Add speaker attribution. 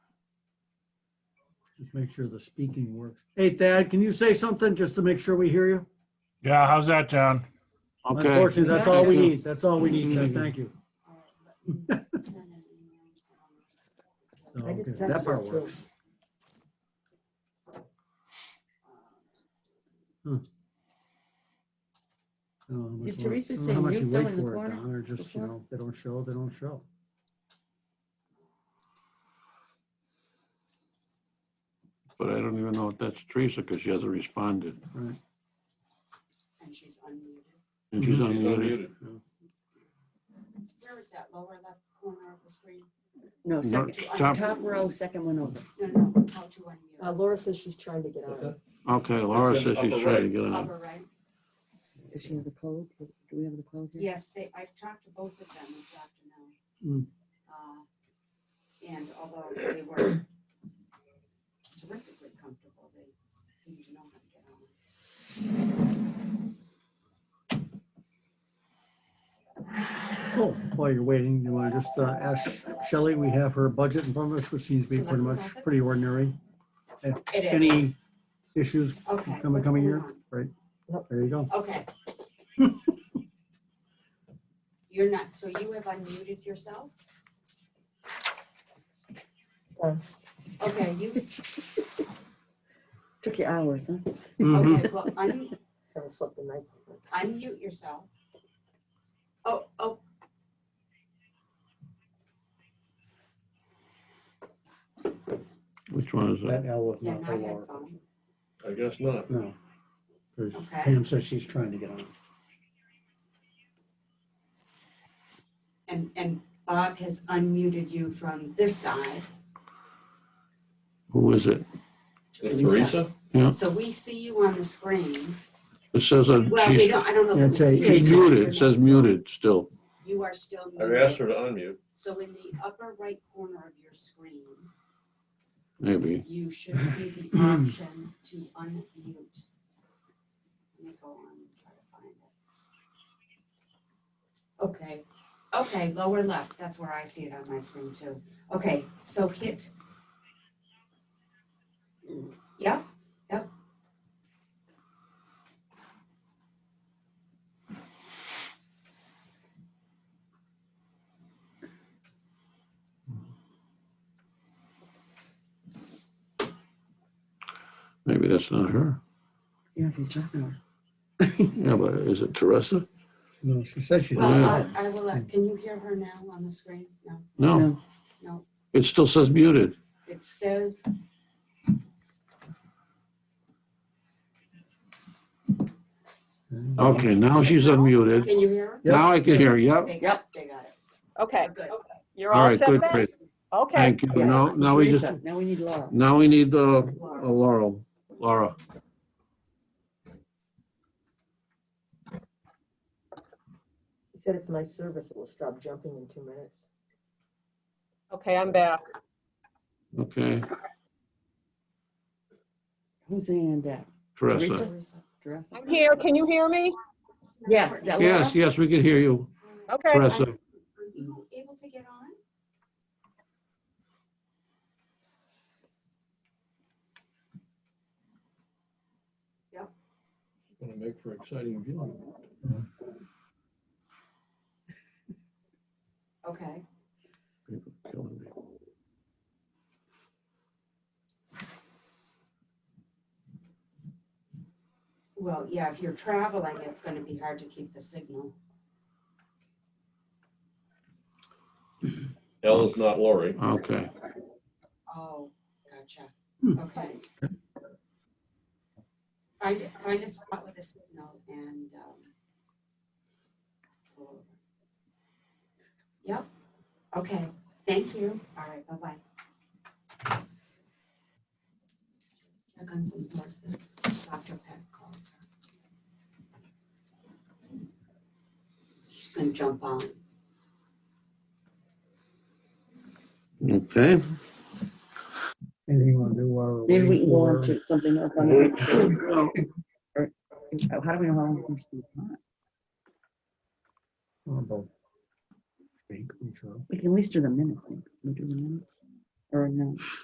Speaker 1: Just make sure the speaking works. Hey Thad, can you say something just to make sure we hear you?
Speaker 2: Yeah, how's that, John?
Speaker 3: Okay.
Speaker 1: Unfortunately, that's all we need. That's all we need. Thad. Thank you. So,
Speaker 4: I just
Speaker 1: okay, That
Speaker 4: texted
Speaker 1: part
Speaker 4: her, too.
Speaker 1: works. Huh. I don't know how much
Speaker 4: Did
Speaker 1: work-
Speaker 4: Teresa
Speaker 1: I don't
Speaker 4: say
Speaker 1: know how much
Speaker 4: mute
Speaker 1: you
Speaker 4: though
Speaker 1: wait
Speaker 4: in the
Speaker 1: for it,
Speaker 4: corner
Speaker 1: Don, Or just, you
Speaker 4: before?
Speaker 1: know, they don't show, they don't show.
Speaker 3: But I don't even know if that's Teresa because she hasn't responded.
Speaker 1: Right.
Speaker 5: And she's unmuted.
Speaker 3: And she's
Speaker 6: She's
Speaker 3: unmuted.
Speaker 6: unmuted.
Speaker 5: Where is that lower left corner of the screen?
Speaker 4: No,
Speaker 3: No,
Speaker 4: second,
Speaker 3: top-
Speaker 4: top row, second one over.
Speaker 5: No, no, how to unmute.
Speaker 4: Uh, Laura says she's trying to get out. of it.
Speaker 3: Okay, Laura
Speaker 6: It's in
Speaker 3: says she's
Speaker 6: upper
Speaker 3: trying to
Speaker 6: right.
Speaker 3: get
Speaker 1: Mm-hmm.
Speaker 3: on.
Speaker 5: Upper right?
Speaker 4: Does she have the code? Do we have the code here?
Speaker 5: Yes, they, I talked to both of them this
Speaker 1: Hmm.
Speaker 5: afternoon. Uh, And although they were terrifically comfortable, they seemed to know how to get on.
Speaker 1: Cool. While you're waiting, you want to just uh, ask Shelley, we have her budget in front of us, which seems to be pretty much,
Speaker 5: Selectmen's office?
Speaker 1: pretty ordinary.
Speaker 5: It is.
Speaker 1: Any issues
Speaker 5: Okay.
Speaker 1: coming,
Speaker 5: what's
Speaker 1: coming
Speaker 5: going
Speaker 1: year?
Speaker 5: on?
Speaker 1: Right.
Speaker 4: Nope.
Speaker 1: There you go.
Speaker 5: Okay. You're not, so you have unmuted yourself?
Speaker 4: No.
Speaker 5: Okay, you,
Speaker 4: Took you hours, huh?
Speaker 3: Mm-hmm.
Speaker 1: Mhm.
Speaker 5: okay, well, un-
Speaker 4: Haven't slept the night.
Speaker 5: unmute yourself. Oh, oh.
Speaker 3: Which one is it?
Speaker 1: That L was
Speaker 5: Yeah,
Speaker 1: not
Speaker 5: my
Speaker 1: for Laura.
Speaker 5: headphone.
Speaker 6: I guess not.
Speaker 1: No. Because
Speaker 5: Okay.
Speaker 1: Pam says she's trying to get on.
Speaker 5: And, and Bob has unmuted you from this side.
Speaker 3: Who is it?
Speaker 6: Teresa?
Speaker 3: Yeah,
Speaker 5: So we see you on the screen.
Speaker 3: it says that
Speaker 5: Well, we
Speaker 3: she's,
Speaker 5: don't, I don't know.
Speaker 1: Yeah,
Speaker 5: if we see
Speaker 1: it's a-
Speaker 3: she's
Speaker 5: you.
Speaker 3: muted. It says muted still.
Speaker 5: You are still
Speaker 6: I've asked
Speaker 5: muted.
Speaker 6: her to unmute.
Speaker 5: So in the upper right corner of your screen,
Speaker 3: Maybe.
Speaker 5: you should see the option to unmute. Let me go on and try to find it. Okay, okay, lower left, that's where I see it on my screen too. Okay, so hit. Yep, yep.
Speaker 3: Maybe that's not her.
Speaker 4: Yeah, she's talking. hours.
Speaker 3: Yeah, but is it Teresa?
Speaker 1: No, she said she's.
Speaker 5: Well,
Speaker 1: on.
Speaker 5: I I will, let- can you hear her now on the screen? No,
Speaker 3: No,
Speaker 4: No,
Speaker 5: no,
Speaker 3: it still says muted.
Speaker 5: it says,
Speaker 3: Okay, now Oh, she's unmuted.
Speaker 5: can you hear her?
Speaker 1: Yep.
Speaker 3: Now I can hear. Yep.
Speaker 5: They got, they got it.
Speaker 7: Okay,
Speaker 5: We're good.
Speaker 7: you're
Speaker 3: All
Speaker 7: all
Speaker 3: right,
Speaker 7: set
Speaker 3: good,
Speaker 7: then?
Speaker 3: great.
Speaker 7: Okay,
Speaker 3: Thank you.
Speaker 4: Yeah.
Speaker 3: Now, now we just,
Speaker 4: Teresa, Now we need Laura.
Speaker 3: now we need uh, uh, Laurel, Laura.
Speaker 8: He said it's my service. It will stop jumping in two minutes.
Speaker 7: okay, I'm back.
Speaker 3: Okay,
Speaker 4: Who's in that?
Speaker 3: Teresa.
Speaker 4: Teresa? Teresa?
Speaker 7: I'm here, can you hear me?
Speaker 4: Yes, is that Laura?
Speaker 3: Yes, yes, we can hear you,
Speaker 7: Okay.
Speaker 3: Teresa.
Speaker 5: Are you able to get on?
Speaker 6: Going to make for exciting viewing.
Speaker 5: Okay, well, yeah, if you're traveling, it's gonna be hard to keep the signal.
Speaker 6: L is not Lori.
Speaker 3: Okay,
Speaker 5: Oh, gotcha,
Speaker 1: Hmm.
Speaker 5: okay. Find, find a spot with a signal and, um, go over. yep, okay, thank you, all right, bye-bye. Check on some horses, Dr. Peck called her. She's gonna jump on.
Speaker 3: okay.
Speaker 1: Anything you want to do while we're
Speaker 4: Maybe we
Speaker 1: waiting
Speaker 4: can go on
Speaker 1: for?
Speaker 4: to something else on the. Or- oh, How do we know how long? it's gonna be?
Speaker 1: Oh, both. Think, we shall.
Speaker 4: We can at least do the minutes. maybe. Can we do the minutes? Or no?